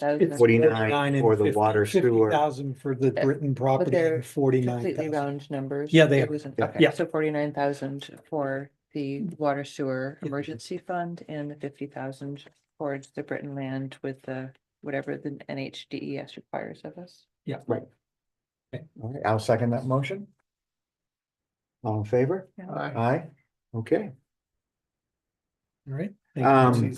Those It's are- Forty-nine and for the 50 water 50,000 sewer. for the Britain property they're and forty-nine Completely thousand. round numbers. Yeah, they It are. wasn't- Yeah. okay, Yeah. So forty-nine thousand for the water sewer Yeah. emergency fund and the fifty thousand towards the Britain land with the, whatever the NHDES E requires of us. All right, I'll second that motion. All in favor? Aye, okay, All right. Um,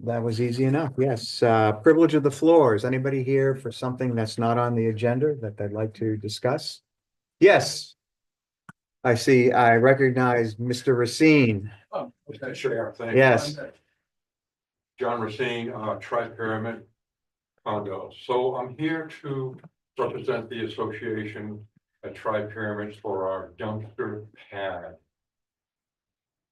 that was easy enough, yes, uh, privilege of the floor, is anybody here for something that's not on the agenda that they'd like to discuss? Yes. I see, I recognize Mr. Racine, Oh, okay, sure. Thank you. Yes. John Racine, uh, Tri Pyramid Condo. So I'm here to represent the association at Tri Pyramids for our dumpster pad.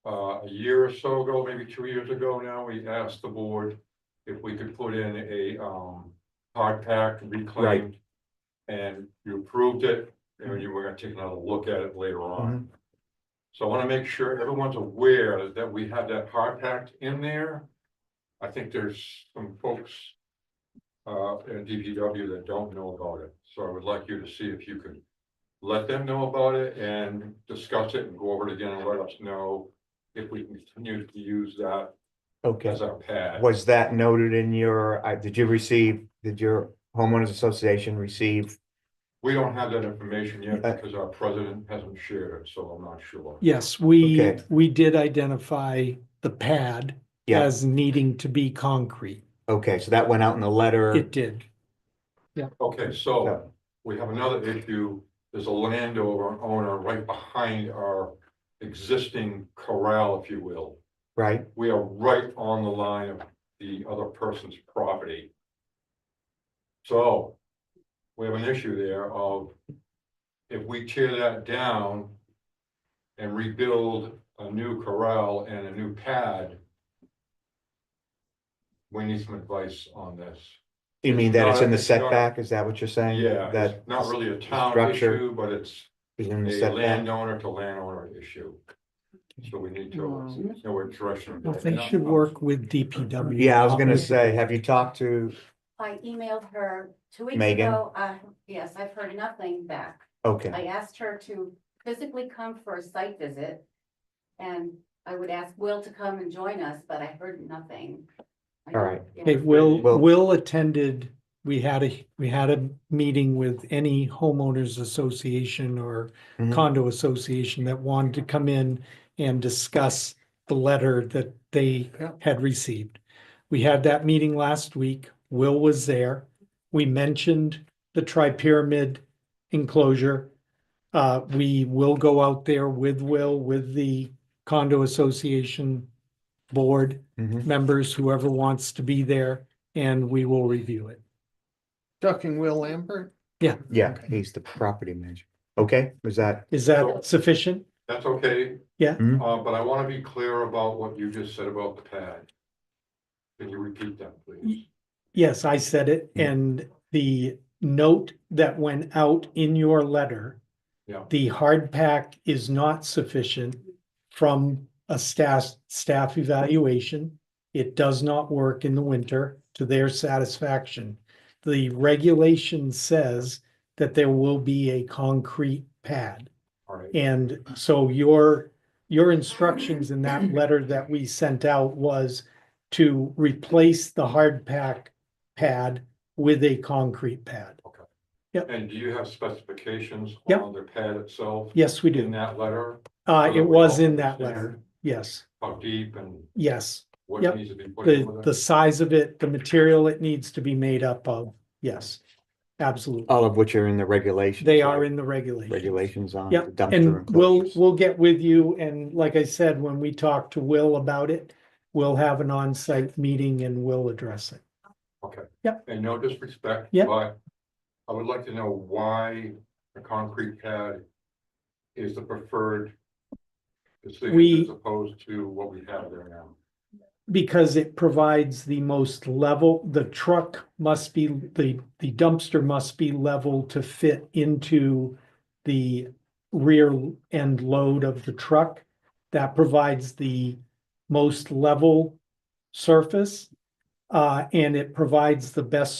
Uh, a year or so ago, maybe two years ago now, we asked the board if we could put in a, um, hard pack reclaimed. And you approved it, and you were gonna take another look at it later on. So I wanna make sure everyone's aware that we have that hard pack in there. I think there's some folks. Uh, in DPW that don't know about it, so I would like you to see if you could. Let them know about it and discuss it and go over it again and let us know if we can continue to use that okay, as our pad. was that noted in your, uh, did you receive, did your homeowners association receive? We don't have that information yet Okay. because our president hasn't shared it, so I'm not sure. Yes, we, Okay. we did identify the pad Yeah. as needing to be concrete. Okay, so that went out in the letter. It did. Okay, Yeah. so we have another issue. There's a landowner owner right behind our existing corral, if you will. Right, We are right on the line of the other person's property. So we have an issue there of if we tear that down and rebuild a new corral and a new pad, we need some advice on this. you mean that it's in the It's not- it's not- setback, is that what you're saying? Yeah, That it's not really a town structure issue, but it's is in the a setback, landowner to landowner issue. So we need to Mm. know what direction. Well, They should work with DPW. yeah, I was gonna on say, have you talked to, I emailed her two weeks Megan? ago. Uh, yes, I've heard nothing back. okay. I asked her to physically come for a site visit. And I would ask Will to come and join us, but I heard nothing. I All don't- right. yeah. Hey, Will, Well- Will attended, we had a, we had a meeting with any homeowners association or Mhm. condo association that wanted to come in and discuss the letter that they had received. We had that meeting last week. Will was there. We mentioned the tri-pyramid enclosure. Uh, we will go out there with Will, with the condo association board Mhm. members, whoever wants to be there, and we will review it. Talking Will Lambert? Yeah, he's the property manager. Okay, was that, Is that sufficient? That's okay. Yeah. Mhm. Uh, but I want to be clear about what you just said about the pad. Can you repeat that, please? Yes, I said it, Mm. and the note that went out in your letter. Yeah. The hard pack is not sufficient from a staff, staff evaluation. It does not work in the winter to their satisfaction. The regulation says that there will be a concrete pad. All right. And so your, your instructions in that letter that we sent out was to replace the hard pack pad with a concrete pad. And do you have specifications Yep. on the pad itself? Yes, we In do. that letter, Uh, so it that we was all in that understand. letter. Yes, how deep and yes. what Yep. needs to be put in The, with the it? size of it, the material it needs to be made up of. Yes, absolutely. Uh, all of which are in the regulations? They are right? in the regulations. Regulations on. Yep, the dumpster And we'll, enclosures. we'll get with you, and like I said, when we talk to Will about it, we'll have an on-site meeting and we'll address it. And no disrespect. Yep. But I would like to know why a concrete pad is the preferred decision We- as opposed to what we have there now. Because it provides the most level, the truck must be, the, the dumpster must be level to fit into the rear end load of the truck. That provides the most level surface, uh, and it provides the best